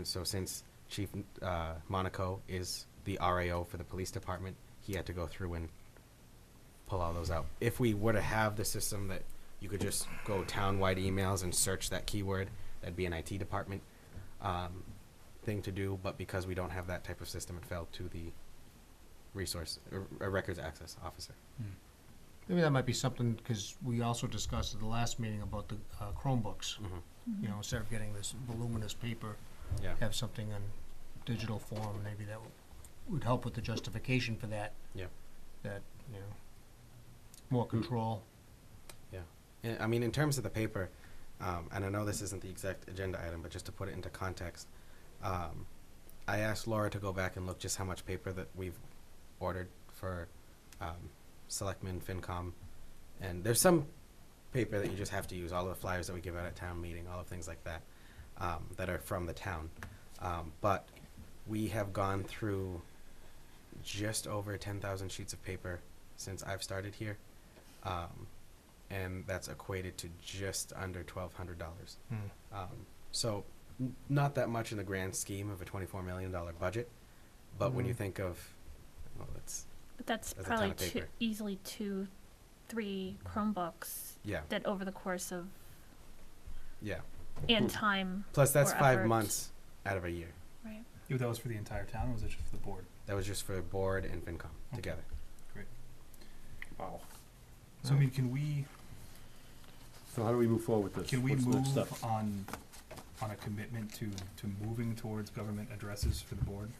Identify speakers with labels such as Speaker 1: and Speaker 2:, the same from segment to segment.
Speaker 1: And so since Chief uh, Monaco is the RAO for the police department, he had to go through and pull all those out. If we were to have the system that you could just go townwide emails and search that keyword, that'd be an IT department um, thing to do. But because we don't have that type of system, it fell to the resource, or, or records access officer.
Speaker 2: Maybe that might be something, because we also discussed at the last meeting about the uh, Chromebooks.
Speaker 1: Mhm.
Speaker 2: You know, instead of getting this voluminous paper,
Speaker 1: Yeah.
Speaker 2: have something in digital form, maybe that would help with the justification for that.
Speaker 1: Yeah. Hmm.
Speaker 2: That, you know, more control.
Speaker 1: Yeah, I mean, in terms of the paper, um, and I know this isn't the exact agenda item, but just to put it into context, um, I asked Laura to go back and look just how much paper that we've ordered for um, Selectmen, FinCom, and there's some paper that you just have to use, all of the flyers that we give out at town meeting, all of things like that, um, that are from the town. Um, but we have gone through just over 10,000 sheets of paper since I've started here. Um, and that's equated to just under twelve hundred dollars.
Speaker 2: Hmm.
Speaker 1: Um, so n- not that much in the grand scheme of a twenty-four million dollar budget, but when you
Speaker 2: Mhm.
Speaker 1: think of, well, it's
Speaker 3: But that's
Speaker 1: That's a ton
Speaker 3: probably
Speaker 1: of
Speaker 3: two,
Speaker 1: paper. Mm-hmm.
Speaker 3: easily two, three Chromebooks
Speaker 1: yeah,
Speaker 3: that over the course of,
Speaker 1: yeah.
Speaker 3: and time,
Speaker 1: Plus that's
Speaker 3: Or
Speaker 1: five
Speaker 3: effort.
Speaker 1: months out of a year.
Speaker 3: right?
Speaker 4: Yeah, that was for the entire town, or was it just for the board?
Speaker 1: That was just for board and FinCom together.
Speaker 4: Wow. So I
Speaker 2: Yeah.
Speaker 4: mean, can we,
Speaker 5: So how do we move forward with this?
Speaker 4: can we
Speaker 5: What's the next
Speaker 4: move
Speaker 5: step?
Speaker 4: on, on a commitment to, to moving towards government addresses for the board?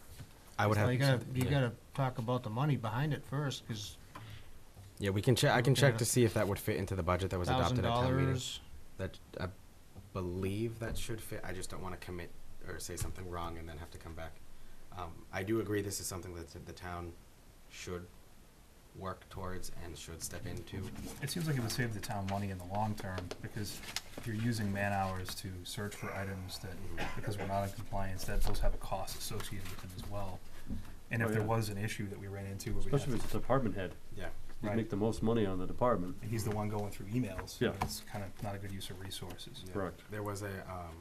Speaker 1: I would
Speaker 2: So
Speaker 1: have.
Speaker 2: You
Speaker 1: to
Speaker 2: gotta,
Speaker 1: check-
Speaker 2: you
Speaker 1: yeah.
Speaker 2: gotta talk about the money behind it first, because
Speaker 1: Yeah, we can check. I can check
Speaker 2: Yeah.
Speaker 1: to see if that would fit into the budget that was
Speaker 2: thousand
Speaker 1: adopted at town meeting.
Speaker 2: dollars.
Speaker 1: That I believe that should fit. I just don't want to commit or say something wrong and then have to come back. Um, I do agree this is something that the town should work towards and should step into.
Speaker 4: It seems like it would save the town money in the long term, because if you're using man hours to search for items that, because we're not in compliance, that those have a cost associated with them as well. And if
Speaker 5: Oh,
Speaker 4: there
Speaker 5: yeah.
Speaker 4: was an issue that we ran into where we
Speaker 5: Especially
Speaker 4: had,
Speaker 5: if it's a department head,
Speaker 1: Yeah.
Speaker 5: you
Speaker 4: right,
Speaker 5: make the most money on the department.
Speaker 4: and he's the one going through emails,
Speaker 5: Yeah.
Speaker 4: it's kind of not a good use of resources.
Speaker 1: yeah.
Speaker 5: Correct.
Speaker 1: There was a, um,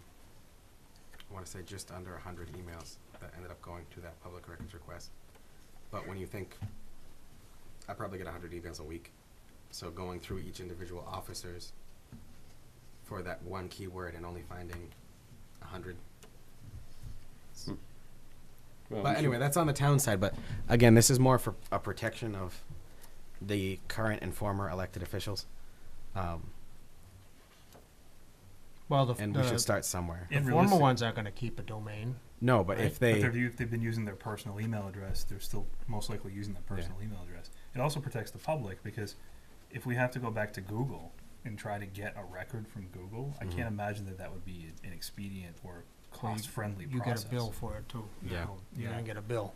Speaker 1: I want to say just under a hundred emails that ended up going to that public records request. But when you think, I probably get a hundred emails a week, so going through each individual officers for that one keyword and only finding a hundred
Speaker 5: Well, we
Speaker 1: But
Speaker 5: should-
Speaker 1: anyway, that's on the town side. But again, this is more for a protection of the current and former elected officials. Um,
Speaker 2: Well, the,
Speaker 1: and we should
Speaker 2: the
Speaker 1: start somewhere.
Speaker 4: And
Speaker 2: former
Speaker 4: realistic-
Speaker 2: ones aren't gonna keep a domain.
Speaker 1: No, but
Speaker 2: Right.
Speaker 1: if
Speaker 2: But
Speaker 1: they,
Speaker 4: But they've, u- they've been using their personal email address, they're still most likely using their
Speaker 1: Yeah.
Speaker 4: personal email address. It also protects the public because if we have to go back to Google and try to get a record from Google, I
Speaker 1: Mhm.
Speaker 4: can't imagine that that would be an- an expedient or
Speaker 2: Well, you-
Speaker 4: cost-friendly
Speaker 2: You get
Speaker 4: process.
Speaker 2: a bill for it too. you
Speaker 1: Yeah.
Speaker 2: know, You're
Speaker 4: Yeah.
Speaker 2: gonna get a bill.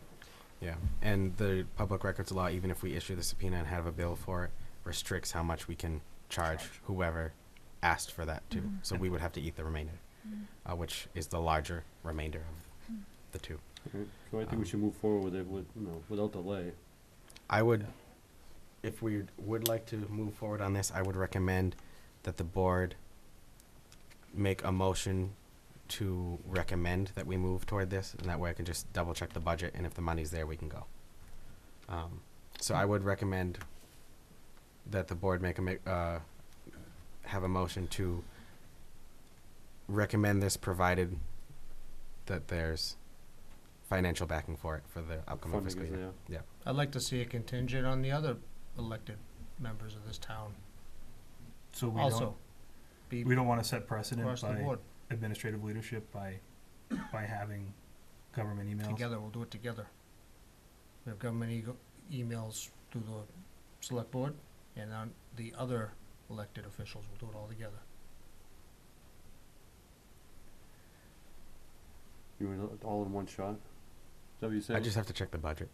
Speaker 1: yeah, and the public records law, even if we issue the subpoena and have a bill for it, restricts how much we can charge,
Speaker 4: Charge.
Speaker 1: whoever asked for that too.
Speaker 3: Mhm.
Speaker 1: So we would have to eat the remainder,
Speaker 3: Mm.
Speaker 1: uh, which is the larger remainder of
Speaker 3: Mm.
Speaker 1: the two.
Speaker 5: okay. So I think we should move forward with it with, you know, without delay.
Speaker 1: I would, if we would like to move forward on this, I would recommend that the board make a motion to recommend that we move toward this, and that way I can just double check the budget, and if the money's there, we can go. Um, so I would recommend that the board make a ma- uh, have a motion to recommend this, provided that there's financial backing for it for the upcoming
Speaker 5: Funding
Speaker 1: fiscal
Speaker 5: is
Speaker 1: year.
Speaker 5: there.
Speaker 2: I'd like to see a contingent on the other elected members of this town
Speaker 4: So we
Speaker 2: also.
Speaker 4: don't,
Speaker 2: Be
Speaker 4: we don't wanna set precedent
Speaker 2: across the
Speaker 4: by
Speaker 2: board,
Speaker 4: administrative leadership by, by having government emails.
Speaker 2: together, we'll do it together. We have government ego- emails to the select board, and then the other elected officials, we'll do it all together.
Speaker 5: You were not- all in one shot? Is that what you said?
Speaker 1: I just have to check the budget.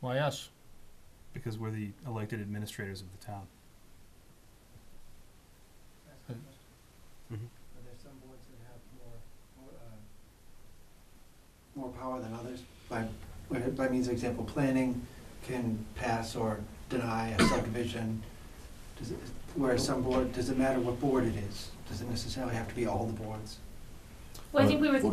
Speaker 2: Why us?
Speaker 4: Because we're the elected administrators of the town.
Speaker 6: Are there some boards that have more, more, uh, more power than others? By, by- by means of example, planning can pass or deny a subdivision. Does it, whereas some board, does it matter what board it is? Does it necessarily have to be all the boards?
Speaker 3: Well, I think we were